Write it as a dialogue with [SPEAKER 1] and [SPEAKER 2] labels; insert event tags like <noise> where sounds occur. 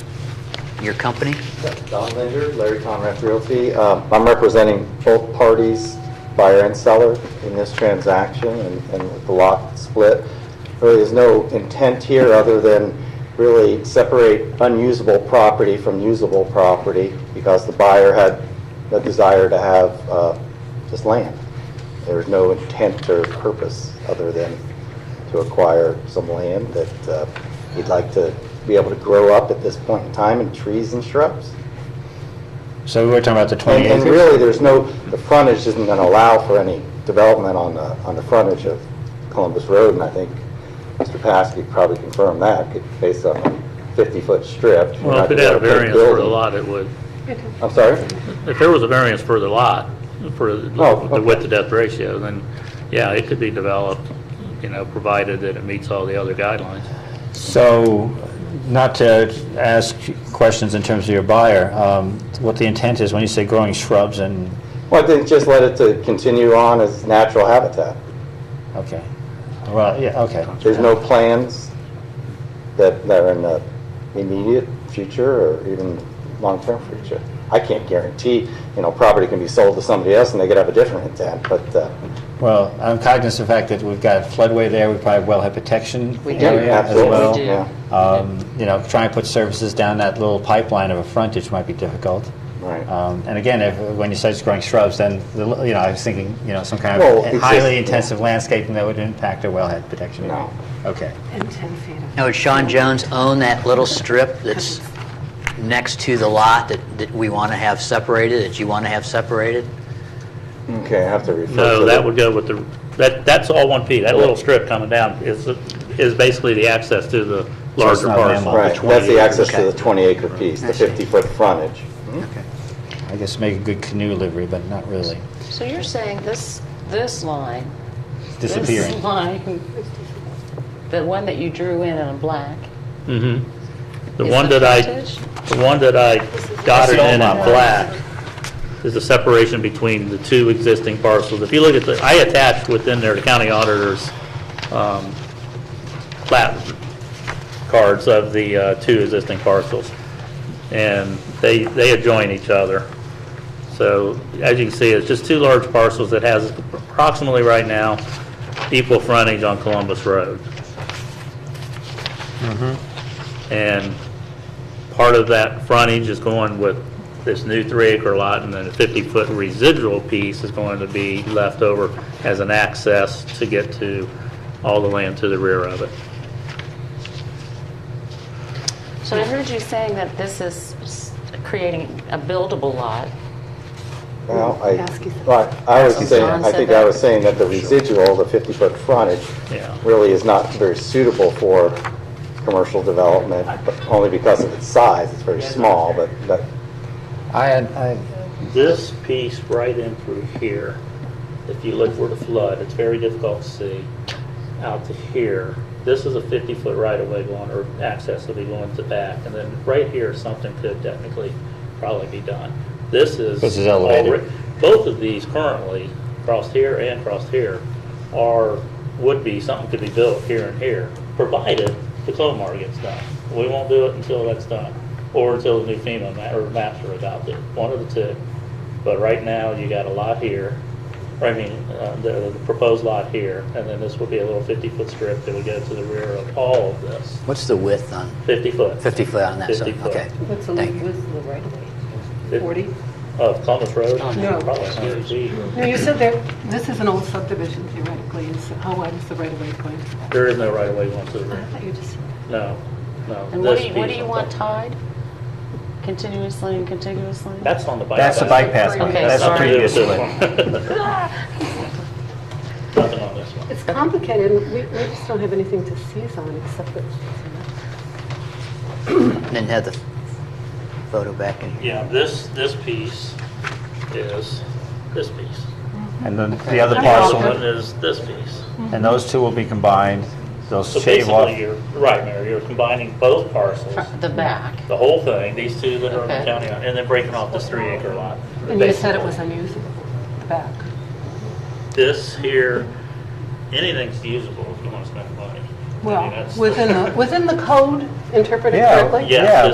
[SPEAKER 1] Your company?
[SPEAKER 2] Don Linder, Larry Conrad Realty. Um, I'm representing both parties, buyer and seller, in this transaction and and with the lot split. Really, there's no intent here other than really separate unusable property from usable property because the buyer had no desire to have uh, just land. There was no intent or purpose other than to acquire some land that uh, he'd like to be able to grow up at this point in time in trees and shrubs.
[SPEAKER 3] So we were talking about the 20
[SPEAKER 2] And, and
[SPEAKER 3] acres?
[SPEAKER 2] really, there's no, the frontage isn't going to allow for any development on the, on the frontage of Columbus Road, and I think Mr. Paskey probably confirmed that, could- based on a 50-foot strip. you're
[SPEAKER 4] Well,
[SPEAKER 2] not
[SPEAKER 4] if it
[SPEAKER 2] gonna
[SPEAKER 4] had a
[SPEAKER 2] be able to put
[SPEAKER 4] variance for the
[SPEAKER 2] building-
[SPEAKER 4] lot, it would.
[SPEAKER 2] I'm sorry?
[SPEAKER 4] If there was a variance for the lot, for
[SPEAKER 2] Oh,
[SPEAKER 4] the width to depth ratio, then, yeah, it could be developed, you know, provided that it meets all the other guidelines.
[SPEAKER 3] So, not to ask questions in terms of your buyer, um, what the intent is when you say growing shrubs and,
[SPEAKER 2] Well, I think just let it to continue on as natural habitat.
[SPEAKER 3] okay. Well, yeah, okay.
[SPEAKER 2] There's no plans that, that are in the immediate future or even long-term future. I can't guarantee, you know, property can be sold to somebody else and they could have a different intent, but uh,
[SPEAKER 3] Well, I'm cognizant of the fact that we've got a floodway there, we probably have well head protection
[SPEAKER 1] We do.
[SPEAKER 3] area Oh, as
[SPEAKER 2] Absolutely,
[SPEAKER 3] well.
[SPEAKER 1] We do.
[SPEAKER 2] yeah.
[SPEAKER 3] Um, You know, trying to put services down that little pipeline of a frontage might be difficult.
[SPEAKER 2] Right.
[SPEAKER 3] Um, And again, if, when you start growing shrubs, then, the li- you know, I was thinking, you know, some kind
[SPEAKER 2] Well,
[SPEAKER 3] of
[SPEAKER 2] it's
[SPEAKER 3] highly
[SPEAKER 2] just-
[SPEAKER 3] intensive landscaping that would impact a wellhead protection area.
[SPEAKER 2] No.
[SPEAKER 3] Okay.
[SPEAKER 5] And 10 feet of...
[SPEAKER 1] Now, would Sean Jones own that little strip that's next to the lot that, that we want to have separated, that you want to have separated?
[SPEAKER 2] Okay, I have to refer to
[SPEAKER 4] No,
[SPEAKER 2] the-
[SPEAKER 4] that would go with the, that, that's all one P. That little strip coming down is, is basically the access to the larger
[SPEAKER 3] not
[SPEAKER 4] parcel.
[SPEAKER 3] landlocked.
[SPEAKER 2] Right, that's
[SPEAKER 4] 20
[SPEAKER 2] the access to
[SPEAKER 1] okay.
[SPEAKER 2] the 20-acre piece, the
[SPEAKER 1] I see.
[SPEAKER 2] 50-foot frontage.
[SPEAKER 1] Okay.
[SPEAKER 3] I guess make a good canoe livery, but not really.
[SPEAKER 6] So you're saying this, this line?
[SPEAKER 3] Disappearing.
[SPEAKER 6] This <laughs> line, the one that you drew in in black?
[SPEAKER 4] Mhm. The
[SPEAKER 6] is
[SPEAKER 4] one that I,
[SPEAKER 6] frontage?
[SPEAKER 4] the one that I dotted
[SPEAKER 3] the
[SPEAKER 4] in in
[SPEAKER 3] old lot.
[SPEAKER 4] black is the separation between the two existing parcels. If you look at the, I attached within there the county auditor's um, plat cards of the uh, two existing parcels. And they, they adjoin each other. So as you can see, it's just two large parcels that has approximately right now equal frontage on Columbus Road. And part of that frontage is going with this new three-acre lot, and then a 50-foot residual piece is going to be left over as an access to get to all the land to the rear of it.
[SPEAKER 6] So I heard you saying that this is s- creating a buildable lot.
[SPEAKER 2] Well, I,
[SPEAKER 5] Ask you something.
[SPEAKER 2] well, I was
[SPEAKER 6] Ask you
[SPEAKER 2] saying,
[SPEAKER 6] something.
[SPEAKER 2] I think I was saying that the residual, the 50-foot frontage,
[SPEAKER 4] Yeah.
[SPEAKER 2] really is not very suitable for commercial development, but only because of its size, it's very small, but, but,
[SPEAKER 3] I had, I,
[SPEAKER 4] This piece right in through here, if you look for the flood, it's very difficult to see out to here. This is a 50-foot right-of-way going, or access will be going to back, and then right here, something could technically probably be done. This is.
[SPEAKER 3] This is elevated.
[SPEAKER 4] alre- Both of these currently, across here and across here, are, would be, something could be built here and here, provided the Clomar gets done. We won't do it until that's done, or until the new FEMA ma, or maps are adopted, one of the two. But right now, you got a lot here, or I mean, uh, the the proposed lot here, and then this would be a little 50-foot strip that would go to the rear of all of this,
[SPEAKER 1] What's the width on,
[SPEAKER 4] 50-foot.
[SPEAKER 1] 50 foot on that side?
[SPEAKER 4] 50 foot.
[SPEAKER 1] Okay.
[SPEAKER 5] What's the
[SPEAKER 1] Thank you.
[SPEAKER 5] width of the right of way?
[SPEAKER 4] It-
[SPEAKER 5] 40?
[SPEAKER 4] Of Columbus Road?
[SPEAKER 5] No.
[SPEAKER 4] Probably 100 feet.
[SPEAKER 5] No, you said there, this is an old subdivision theoretically, and so how wide is the right of way going?
[SPEAKER 4] There is no right-of-way going to the
[SPEAKER 5] I
[SPEAKER 4] rear.
[SPEAKER 5] thought you just,
[SPEAKER 4] No, no.
[SPEAKER 6] And what
[SPEAKER 4] this
[SPEAKER 6] do you, what do
[SPEAKER 4] piece
[SPEAKER 6] you
[SPEAKER 4] on
[SPEAKER 6] want
[SPEAKER 4] top.
[SPEAKER 6] tied? Continuously and contiguously?
[SPEAKER 4] That's on the bike.
[SPEAKER 3] that's the bike path, one.
[SPEAKER 6] Okay,
[SPEAKER 3] that's the
[SPEAKER 6] sorry.
[SPEAKER 3] previous
[SPEAKER 4] This
[SPEAKER 3] one.
[SPEAKER 6] <laughs>
[SPEAKER 4] Nothing on this one.
[SPEAKER 5] it's complicated, and we, we just don't have anything to seize on except that,
[SPEAKER 1] Then have the photo back in here.
[SPEAKER 4] Yeah, this, this piece is this piece.
[SPEAKER 3] And then the other
[SPEAKER 4] The
[SPEAKER 3] parcel,
[SPEAKER 4] One is this piece.
[SPEAKER 3] and those two will be combined, they'll
[SPEAKER 4] So
[SPEAKER 3] shave off.
[SPEAKER 4] basically, you're, right, Mary, you're combining both parcels,
[SPEAKER 6] The back.
[SPEAKER 4] the whole thing, these two that are in the
[SPEAKER 6] Okay.
[SPEAKER 4] county, and then breaking off this three acre lot.
[SPEAKER 5] and you said it
[SPEAKER 4] basically.
[SPEAKER 5] was unusable, the back.
[SPEAKER 4] This here, anything's usable if you want to spend money. I mean,
[SPEAKER 5] Well,
[SPEAKER 4] that's- <laughs>
[SPEAKER 5] within the, within the code interpreted
[SPEAKER 3] Yeah.
[SPEAKER 5] correctly?
[SPEAKER 4] Yes,
[SPEAKER 3] Yeah,